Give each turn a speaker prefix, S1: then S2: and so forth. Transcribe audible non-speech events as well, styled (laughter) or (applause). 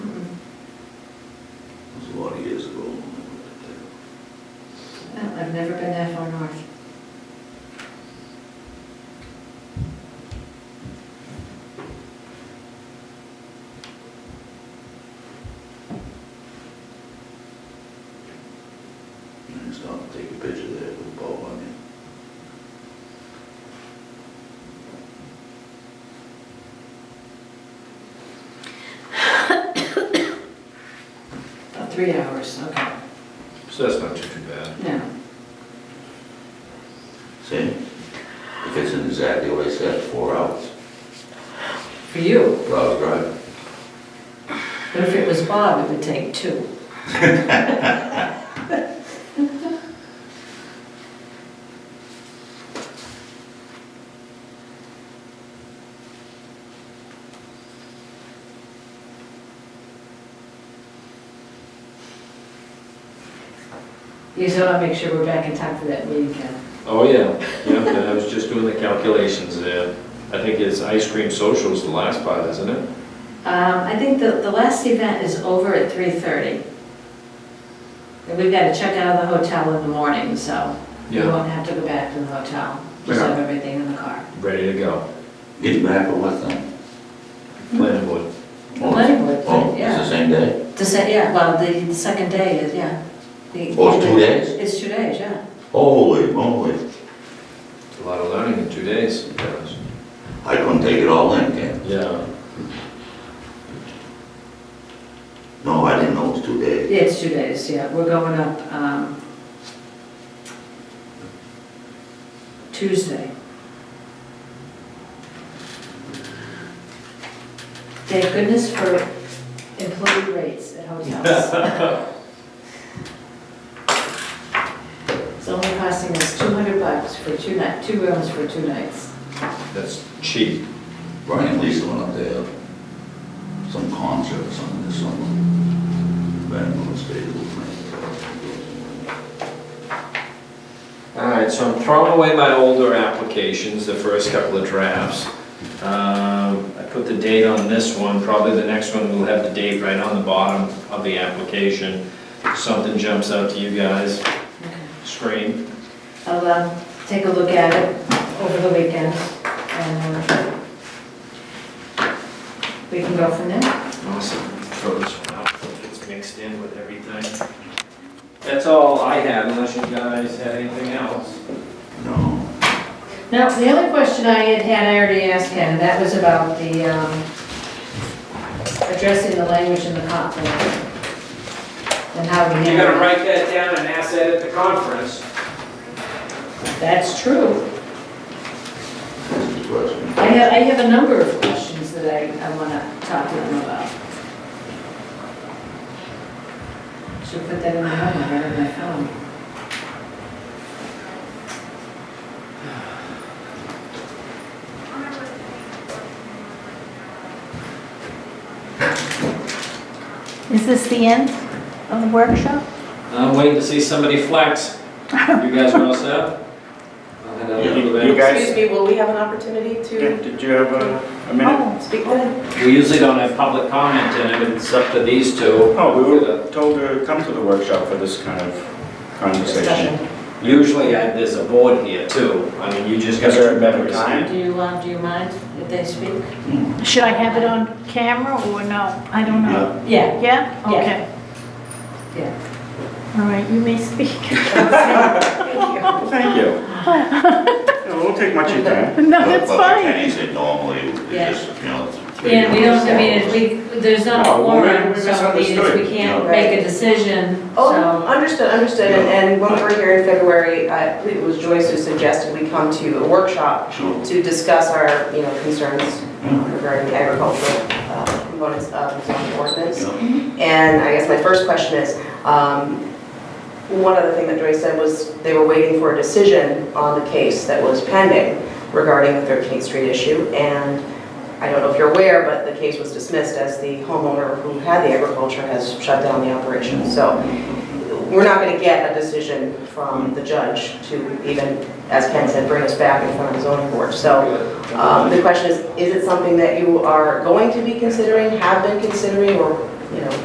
S1: I've never been that far north.
S2: I'm just gonna take a picture of that with Paul on it.
S1: About three hours, okay.
S3: So that's not too, too bad.
S1: No,
S2: See? It fits in exactly what I said, four hours,
S1: for you.
S2: four hours drive.
S1: But if it was Bob, it would take two. You just want to make sure we're back in time for that meeting, Ken.
S3: Oh, yeah, yeah, I was just doing the calculations there. I think it's ice cream social is the last part, isn't it?
S1: Um, I think the, the last event is over at 3:30. And we've got to check out of the hotel in the morning, so we
S3: Yeah.
S1: won't have to go back to the hotel. Just
S3: Yeah.
S1: have everything in the car.
S3: Ready to go.
S2: Get back or what then?
S3: Planning board.
S1: Planning board,
S2: Oh, it's
S1: yeah.
S2: the same day?
S1: The se, yeah, well, the the second day is, yeah. The-
S2: Oh, it's two days?
S1: It's two days, yeah.
S2: Holy moly,
S3: It's A lot of learning in two days. Yes.
S2: I couldn't take it all in, Ken.
S3: Yeah.
S2: No, I didn't know it was two days.
S1: Yeah, it's two days, yeah. We're going up, um, Tuesday. Thank goodness for employee rates at
S3: (laughs)
S1: hotels. It's only costing us two hundred bucks for two night, two rooms for two nights.
S3: (laughs) That's cheap.
S2: Brian and Lisa went up there, some concert or something this summer. Van Moon stayed with me.
S3: All right, so I'm throwing away my older applications, the first couple of drafts. Um, I put the date on this one, probably the next one will have the date right on the bottom of the application. If Something jumps out to you guys, scream.
S1: I'll, um, take a look at it over the weekend and uh, we can go from there.
S3: Awesome. Throw this one out, it's mixed in with everything. That's all I have, unless you guys had anything else.
S2: No,
S1: Now, the other question I had had, I already asked Ken, and that was about the, um, addressing the language in the comp plan. And how we
S3: You're
S1: handle
S3: gonna
S1: it.
S3: write that down and ask that at the conference.
S1: That's true.
S2: that's the question.
S1: I have, I have a number of questions that I, I wanna talk to them about. Should put that in my home, I in my phone.
S4: Is this the end of the workshop?
S3: I'm waiting to see somebody flex. You guys are all set? I'll head out a little bit.
S5: You
S6: Excuse
S5: guys,
S6: me, will we have an opportunity to
S5: did did you have a a minute?
S6: speak to them?
S3: We usually don't have public comment in it, but it's up to these two.
S5: Oh, we were told to come to the workshop for this kind of
S1: Discussion.
S5: conversation.
S3: Usually I- there's a board here too. I mean, you just
S5: Is
S3: gotta
S5: there a better
S3: remember time.
S5: time?
S1: Do you, um, do you mind if they speak?
S4: Oh. Should I have it on camera or no? I don't know.
S1: Yeah.
S4: Yeah?
S1: Yeah.
S4: Okay.
S1: Yeah.
S4: All right, you may speak. (laughs)
S6: Thank you.
S5: Thank
S3: (laughs)
S5: you. Yeah, It won't take much of your time.
S4: No,
S2: But-
S4: it's
S2: but like
S4: fine.
S2: Kenny said normally,
S1: Yeah.
S2: it's just, you know, it's three
S1: Yeah, we don't,
S2: hours,
S1: I mean,
S2: four
S1: if
S2: hours.
S1: we, there's not a
S5: No, we- we
S1: quorum, so we
S5: misunderstood,
S1: we can't
S6: yeah.
S1: make a decision,
S6: Oh,
S1: so.
S6: understood, understood, and, and when we were here in February, I believe it was Joyce who suggested we come to a workshop
S2: Sure.
S6: to discuss our, you know, concerns
S2: Yeah.
S6: regarding the agricultural uh, components of the zoning ordinance.
S2: Yeah.
S6: And I guess my first question is, um, one other thing that Joyce said was they were waiting for a decision on the case that was pending regarding the 13th Street issue. And I don't know if you're aware, but the case was dismissed as the homeowner who had the agriculture has shut down the operation. So we're not going to get a decision from the judge to even, as Ken said, bring us back in front of the zoning board. So um, The question is, is it something that you are going to be considering, have been considering, or, you know,